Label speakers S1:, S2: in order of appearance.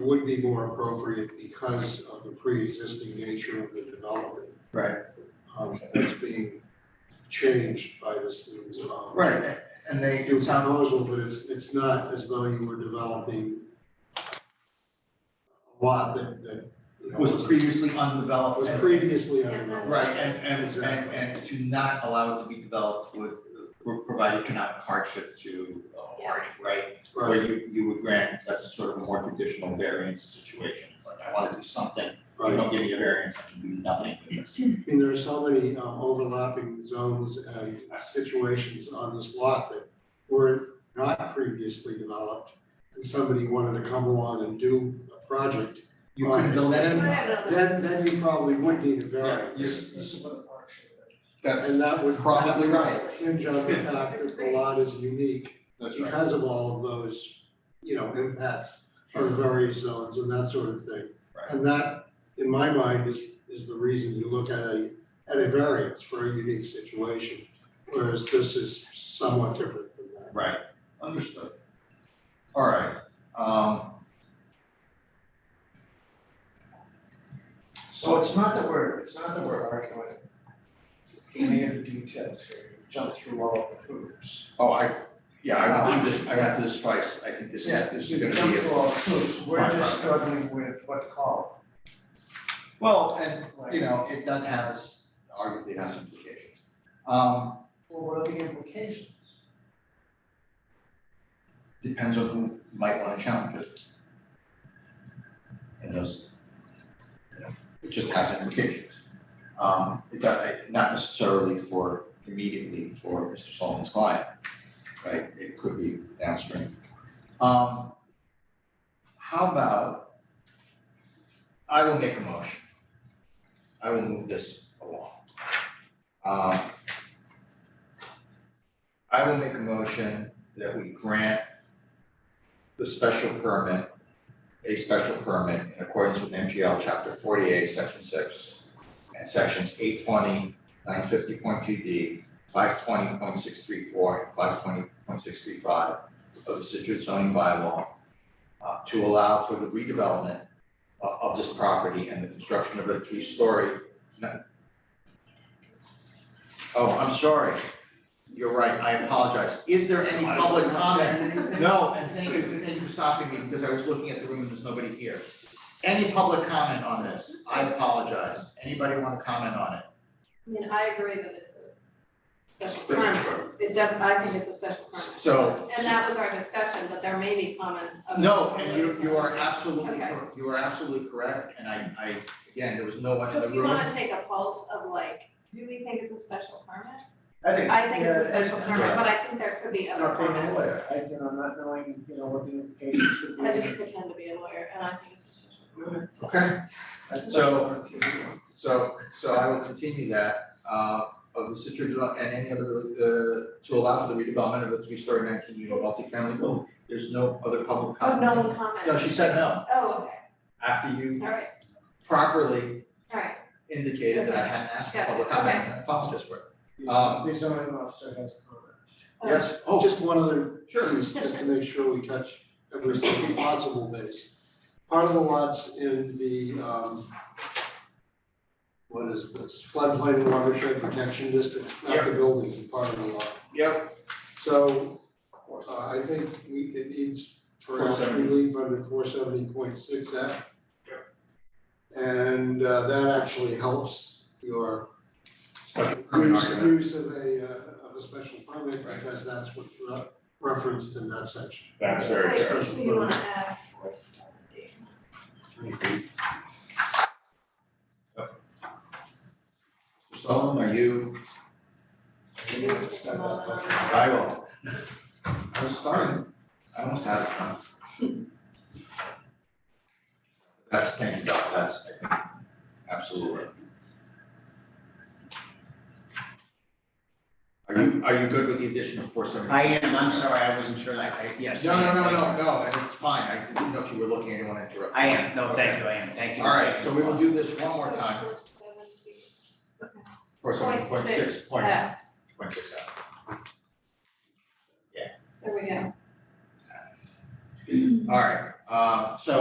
S1: would be more appropriate because of the pre-existing nature of the development.
S2: Right.
S1: Um, that's being changed by this new, um.
S2: Right, and they,
S1: New
S2: it sounds,
S1: proposal, but it's, it's not as though you were developing a lot that, that, you know,
S2: was previously undeveloped.
S1: was
S2: and-
S1: previously undeveloped.
S2: Right, and, and, and,
S1: Exactly.
S2: and to not allow it to be developed would, would provide economic hardship to a party, right?
S1: Right,
S2: Where you, you would grant, that's sort of a more traditional variance situation, it's like, I wanna do something, if you
S1: right.
S2: don't give me a variance, I can do nothing with this.
S1: I mean, there are so many um, overlapping zones and situations on this lot that were not previously developed. And somebody wanted to come along and do a project,
S2: You couldn't build that in.
S1: then, then you probably would need a variance.
S2: This, this is what the park should do. That's,
S1: And that would
S2: Probably
S1: probably
S2: right.
S1: hinge on the fact that the lot is unique
S2: that's right.
S1: because of all of those, you know, impacts on various zones and that sort of thing.
S2: Right.
S1: And that, in my mind, is, is the reason you look at a, at a variance for a unique situation, whereas this is somewhat different than that.
S2: Right, understood. All right, um,
S3: So it's not that we're, it's not that we're arguing any of the details here, We jumped through all of the hoops.
S2: oh, I, yeah, I went through this, I went through this twice, I think this is, this
S3: We
S2: is gonna be.
S3: jumped
S2: a-
S3: through all the hoops, we're
S2: Fine,
S3: just
S2: fine.
S3: struggling with what to call
S2: Well, and,
S3: it, right?
S2: you know, it does has, arguably has implications. Um,
S3: Well, what are the implications?
S2: depends on who might wanna challenge it. And those, you know, it just has implications. Um, it does, not necessarily for, immediately for Mr. Solomon's client, right? It could be downstream. Um, how about, I will make a motion. I will move this along. Um, I will make a motion that we grant the special permit, a special permit in accordance with MGL chapter forty-eight, section six, and sections 820, 950.2 D, five twenty point six three four, and five twenty point six three five of the Situate zoning bylaw uh, to allow for the redevelopment of, of this property and the construction of a three-story. no. Oh, I'm sorry. You're right. I apologize. Is there any public comment? No, and thank you, thank you for stopping me, because I was looking at the room and there's nobody here. Any public comment on this? I apologize. Anybody wanna comment on it?
S4: I mean, I agree that it's a special permit. It def, I think it's a special permit.
S2: So,
S4: And that was our discussion, but there may be comments of.
S2: no, and you, you are absolutely,
S4: Okay.
S2: cor- you are absolutely correct, and I, I, again, there was no one in
S4: So
S2: the
S4: if you
S2: room.
S4: wanna take a pulse of like, do we think it's a special permit?
S3: I think.
S4: I think it's a
S3: yeah,
S4: special
S3: and-
S4: permit, but I think there could be
S3: I'm
S4: other
S3: Not being a
S4: comments.
S3: lawyer, I, you know, not knowing, you know, what the implications could be.
S4: I just pretend to be a lawyer and I think it's a special permit.
S2: Okay,
S3: That's
S2: So-
S3: what I'm doing.
S2: so, so I will continue that, uh, of the Citrus and any other, uh, to allow for the redevelopment of a three-story nineteen-unit multifamily building. There's no other
S4: Oh,
S2: public comment.
S4: no one
S2: No,
S4: commented.
S2: she said no,
S4: Oh,
S2: after
S4: okay,
S2: you
S4: all right,
S2: properly
S4: all right.
S2: indicated that I hadn't asked for public
S4: Gotcha,
S2: comment, and I apologize for it. Um,
S3: The zoning officer has a comment.
S4: Oh,
S2: Yes, oh,
S1: Just one other
S2: sure,
S1: piece, just to make sure we touch every single possible base. Part of the lots in the, um, what is this, floodplain watershed protection district, not the buildings, but part of the lot.
S2: yep,
S1: So, uh, I think we, it needs perhaps
S2: 470.
S1: relief under four seventy point six F. And, uh, that actually helps your
S2: special permit
S1: use,
S2: argument,
S1: use of a, uh, of a special permit,
S2: Right.
S1: because that's what's re- referenced in that section.
S2: that's very
S4: Wait,
S2: fair.
S4: So you wanna add four seventy?
S2: Mr. Solomon, are you, I will. I was starting, I almost had it done. That's, thank you, Doc, that's, I think, absolutely. Are you, are you good with the addition of four seventy?
S5: I am, I'm sorry, I wasn't sure, I, I, yes.
S2: No,
S5: I
S2: no,
S5: am,
S2: no,
S5: thank
S2: no,
S5: you.
S2: no, and it's fine, I didn't know if you were looking, I didn't wanna interrupt.
S5: I am, no, thank you, I am, thank you.
S2: All right, so we will do this one more time,
S4: Four seventy. Okay.
S2: for seven point six point,
S4: F.
S2: point six F.
S4: There we go.
S2: All right, uh, so